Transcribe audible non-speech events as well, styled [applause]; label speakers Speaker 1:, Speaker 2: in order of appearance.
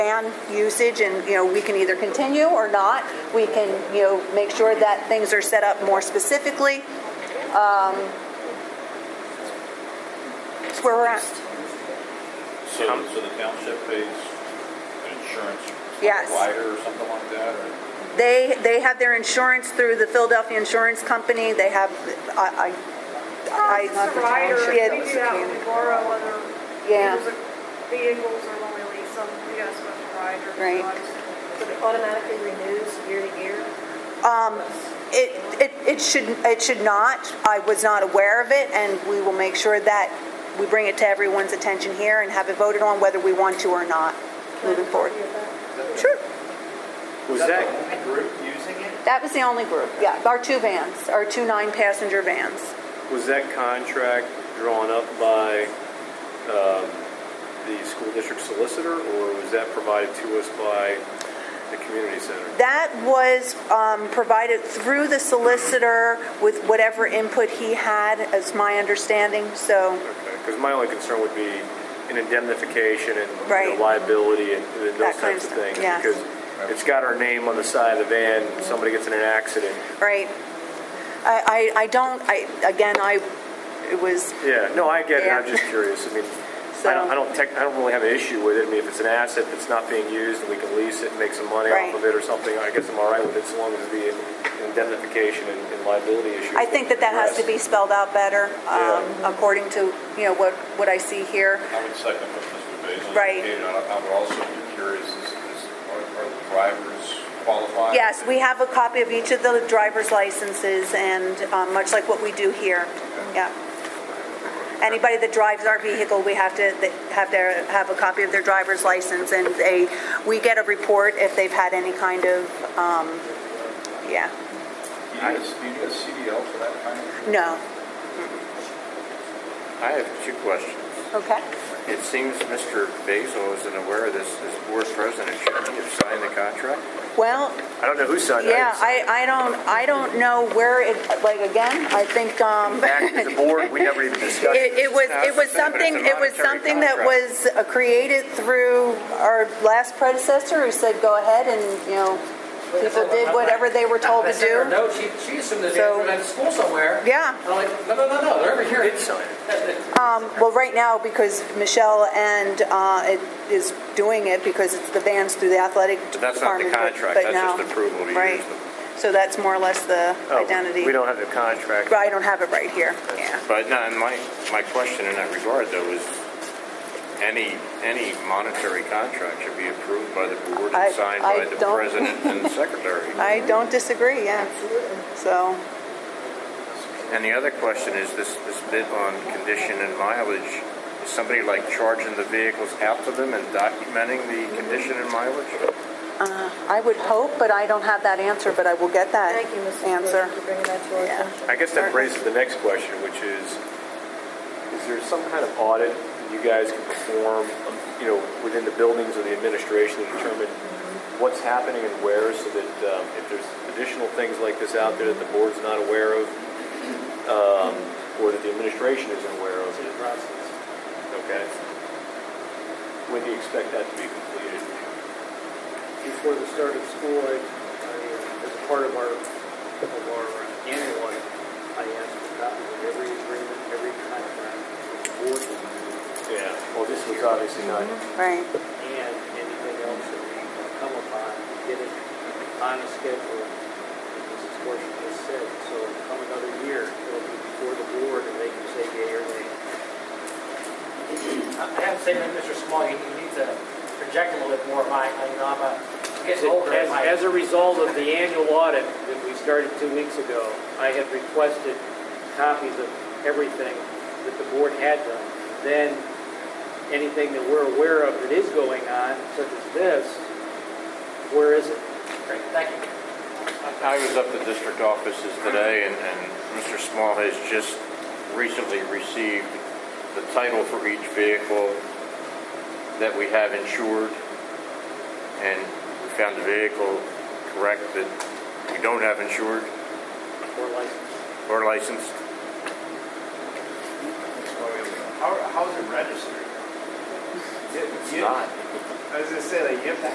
Speaker 1: plan usage and, you know, we can either continue or not. We can, you know, make sure that things are set up more specifically. Um, That's where we're at.
Speaker 2: So, so the township pays an insurance
Speaker 1: Yes.
Speaker 2: rider or something like that, or?
Speaker 1: They, they have their insurance through the Philadelphia Insurance Company. They have, I, I.
Speaker 3: It's a rider, we
Speaker 1: Yeah,
Speaker 3: do that when we borrow other
Speaker 1: Yeah.
Speaker 3: vehicles vehicles or when we lease them, we got a special rider.
Speaker 1: Right.
Speaker 4: So it automatically renews year to year?
Speaker 1: Um, It, it, it should, it should not. I was not aware of it, and we will make sure that we bring it to everyone's attention here and have it voted on whether we want to or not moving forward. Sure.
Speaker 5: Was
Speaker 6: that
Speaker 5: that,
Speaker 6: the only group using it?
Speaker 1: That was the only group, yeah. Our two vans, our two nine-passenger vans.
Speaker 5: was that contract drawn up by um, the school district solicitor, or was that provided to us by the community center?
Speaker 1: That was um, provided through the solicitor with whatever input he had, as my understanding, so,
Speaker 5: Okay, because my only concern would be an indemnification and you know,
Speaker 1: Right.
Speaker 5: liability and and
Speaker 1: That
Speaker 5: those
Speaker 1: kind
Speaker 5: types
Speaker 1: of
Speaker 5: of
Speaker 1: stuff,
Speaker 5: things.
Speaker 1: yeah.
Speaker 5: Because it's got our name on the side of the van, somebody gets in an accident.
Speaker 1: right. I, I, I don't, I, again, I, it was,
Speaker 5: Yeah, no, I get it, I'm
Speaker 1: Yeah.
Speaker 5: just
Speaker 1: [laughs]
Speaker 5: curious. I mean, I
Speaker 1: So-
Speaker 5: don't, I don't tech, I don't really have an issue with it. I mean, if it's an asset that's not being used and we can lease it and make some money
Speaker 1: Right.
Speaker 5: off of it or something, I guess I'm all right with it, so long as the indemnification and and liability issue.
Speaker 1: I think that that has to be spelled out better, um,
Speaker 5: Yeah.
Speaker 1: according to, you know, what, what I see here.
Speaker 2: I would second what Mr. Basil
Speaker 1: Right.
Speaker 2: indicated. I I would also be curious, is, is, are are the drivers qualified?
Speaker 1: Yes, we have a copy of each of the driver's licenses, and um, much like what we do here, yeah. Anybody that drives our vehicle, we have to, they have their, have a copy of their driver's license, and they, we get a report if they've had any kind of, um, yeah,
Speaker 2: Do you need a, do you need a CDL for that kind of?
Speaker 1: no.
Speaker 6: I have two questions.
Speaker 1: Okay.
Speaker 6: It seems Mr. Basil isn't aware of this, as board president, shouldn't he have signed the contract?
Speaker 1: Well,
Speaker 5: I don't know who signed it.
Speaker 1: yeah, I, I don't, I don't know where it, like, again, I think, um,
Speaker 5: Back to the board, we never even
Speaker 1: [laughs]
Speaker 5: discussed it.
Speaker 1: It, it was, it was
Speaker 6: That's the thing, but it's
Speaker 1: something, it was something
Speaker 6: a monetary
Speaker 1: that
Speaker 6: contract.
Speaker 1: was uh, created through our last predecessor who said, go ahead and, you know, people did whatever they were told to
Speaker 7: I sent her a
Speaker 1: do.
Speaker 7: note. she, she assumed that they
Speaker 1: So-
Speaker 7: were at school somewhere.
Speaker 1: Yeah.
Speaker 7: And I'm like, no, no, no, no, they're over here.
Speaker 5: Did sign it.
Speaker 1: Um, well, right now, because Michelle and, uh, it is doing it because it's the vans through the athletic
Speaker 6: But
Speaker 1: department.
Speaker 6: that's not the contract,
Speaker 1: but no.
Speaker 6: that's just approval to
Speaker 1: Right.
Speaker 6: use them.
Speaker 1: So that's more or less the
Speaker 5: Oh,
Speaker 1: identity.
Speaker 5: We don't have the contract.
Speaker 1: But I don't have it right here, yeah.
Speaker 6: But no, and my, my question in that regard though is, any, any monetary contract should be approved by the board
Speaker 1: I-
Speaker 6: and signed
Speaker 1: I
Speaker 6: by the
Speaker 1: don't-
Speaker 6: president
Speaker 1: [laughs]
Speaker 6: and secretary.
Speaker 1: I don't disagree, yeah. So,
Speaker 6: And the other question is this, this bit on condition and mileage, is somebody like charging the vehicles out to them and documenting the condition and mileage?
Speaker 1: I would hope, but I don't have that answer, but I will get that
Speaker 4: Thank you, Mrs.
Speaker 1: answer.
Speaker 4: Lewis, for bringing that to our
Speaker 1: Yeah.
Speaker 4: attention.
Speaker 5: I guess that raises the next question, which is, is there some kind of audit you guys can perform, um, you know, within the buildings or the administration to determine what's happening and where, so that um, if there's additional things like this out there that the board's not aware of, um, or that the administration isn't aware of? Okay. When do you expect that to be completed?
Speaker 8: before the start of school, I, I, uh, as part of our, of our annual, audit, I asked for copies of every agreement, every contract, with the board, review,
Speaker 5: Yeah. Well, this was obviously not.
Speaker 1: Right.
Speaker 8: and anything else that we come upon, get it on a schedule, as Mrs. Horsham has said, so come another year, it'll be before the board, and they can say yay or nay.
Speaker 7: I I have to say, that Mr. Small, you you need to project a little bit more, Mike, you know, I'm a, getting older.
Speaker 9: As,
Speaker 7: Mike.
Speaker 9: as a result of the annual audit that we started two weeks ago, I had requested copies of everything that the board had done. Then, anything that we're aware of that is going on, such as this, where is it?
Speaker 7: Great, Thank you.
Speaker 6: I was up at district offices today, and, and Mr. Small has just recently received the title for each vehicle that we have insured, and we found the vehicle correct that we don't have insured
Speaker 7: Or license.
Speaker 6: or licensed.
Speaker 2: Oh, How, how is it registered?
Speaker 6: It's not.
Speaker 10: I was gonna say, like, you have to